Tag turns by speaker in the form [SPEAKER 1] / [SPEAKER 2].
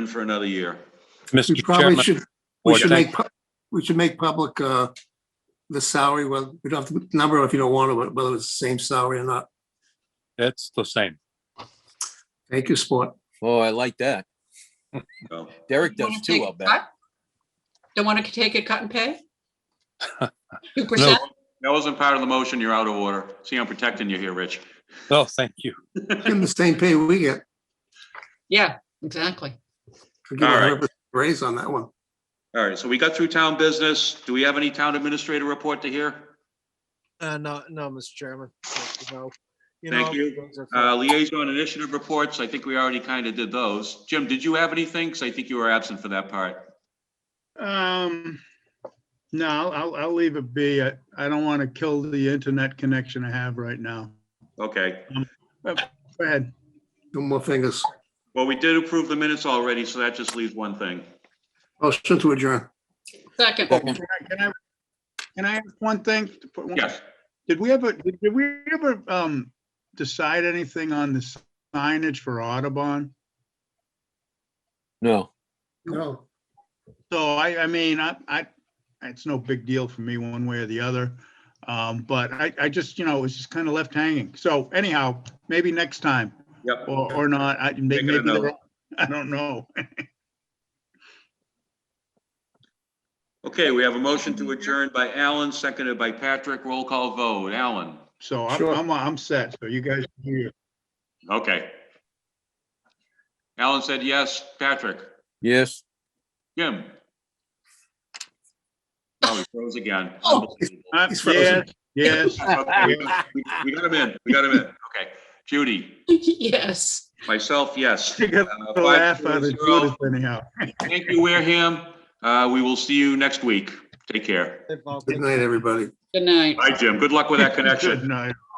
[SPEAKER 1] in for another year.
[SPEAKER 2] We
[SPEAKER 3] Mr.
[SPEAKER 2] probably
[SPEAKER 3] Chairman,
[SPEAKER 2] should, we
[SPEAKER 3] Board,
[SPEAKER 2] should
[SPEAKER 3] thank-
[SPEAKER 2] make, pu- we should make public uh, the salary, well, we don't have to number if you don't want to, but whether it's the same salary or not.
[SPEAKER 3] it's the same.
[SPEAKER 2] Thank you, sport.
[SPEAKER 4] Oh, I like that.
[SPEAKER 1] So,
[SPEAKER 4] Derek
[SPEAKER 5] Don't
[SPEAKER 4] does
[SPEAKER 5] wanna take
[SPEAKER 4] too, I'll
[SPEAKER 5] a
[SPEAKER 4] bet.
[SPEAKER 5] cut? Don't want to take a cut and pay? Two
[SPEAKER 3] No,
[SPEAKER 5] percent?
[SPEAKER 1] That wasn't part of the motion. You're out of order. See, I'm protecting you here, Rich.
[SPEAKER 3] no, thank you.
[SPEAKER 2] Give them the same pay we get.
[SPEAKER 5] Yeah, exactly.
[SPEAKER 2] We'll Give
[SPEAKER 1] All right.
[SPEAKER 2] a hundred percent raise on that one.
[SPEAKER 1] All right, so we got through town business. Do we have any town administrator report to hear?
[SPEAKER 6] Uh, no, no, Mr. Chairman. Thank you, no. You
[SPEAKER 1] Thank
[SPEAKER 6] know,
[SPEAKER 1] you.
[SPEAKER 6] those are
[SPEAKER 1] Uh,
[SPEAKER 6] fun.
[SPEAKER 1] liaison initiative reports, I think we already kind of did those. Jim, did you have anything? Because I think you were absent for that part.
[SPEAKER 7] Um, no, I'll, I'll, I'll leave it be. I, I don't want to kill the internet connection I have right now.
[SPEAKER 1] Okay,
[SPEAKER 7] Go ahead.
[SPEAKER 2] Two more fingers.
[SPEAKER 1] well, we did approve the minutes already, so that just leaves one thing.
[SPEAKER 2] Motion to adjourn.
[SPEAKER 5] Second,
[SPEAKER 4] Second.
[SPEAKER 7] Can I- can I, can I ask one thing? to put one-
[SPEAKER 1] Yes,
[SPEAKER 7] Did we ever, did did we ever, um, decide anything on the signage for Audubon?
[SPEAKER 4] No.
[SPEAKER 2] No.
[SPEAKER 7] So I, I mean, I, I, it's no big deal for me one way or the other. Um, but I, I just, you know, it was just kind of left hanging. So anyhow, maybe next time
[SPEAKER 1] yep.
[SPEAKER 7] or, or not. I,
[SPEAKER 1] it a
[SPEAKER 7] maybe, they're
[SPEAKER 1] note.
[SPEAKER 7] wrong. I don't know.
[SPEAKER 1] Okay, we have a motion to adjourn by Alan, seconded by Patrick. Roll call vote. Alan?
[SPEAKER 7] So I'm,
[SPEAKER 2] Sure.
[SPEAKER 7] I'm, I'm set. So you guys, do your-
[SPEAKER 1] Okay. Alan said yes. Patrick?
[SPEAKER 4] Yes.
[SPEAKER 1] Jim? Oh, he froze again.
[SPEAKER 5] Oh.
[SPEAKER 1] Unbelievable.
[SPEAKER 7] Uh,
[SPEAKER 2] He's
[SPEAKER 7] yes,
[SPEAKER 2] frozen.
[SPEAKER 7] yes.
[SPEAKER 1] Okay, we- We got him in. We got him in. Okay. Judy,
[SPEAKER 5] yes.
[SPEAKER 1] myself, yes.
[SPEAKER 7] You got
[SPEAKER 1] Uh,
[SPEAKER 7] a laugh out of
[SPEAKER 1] five zero zero.
[SPEAKER 7] Judas anyhow.
[SPEAKER 1] Thank you, Wareham. Uh, we will see you next week. Take care.
[SPEAKER 6] They've all-
[SPEAKER 2] Good night, everybody.
[SPEAKER 5] Good night.
[SPEAKER 1] Bye, Jim. Good luck with that connection.
[SPEAKER 7] Good night.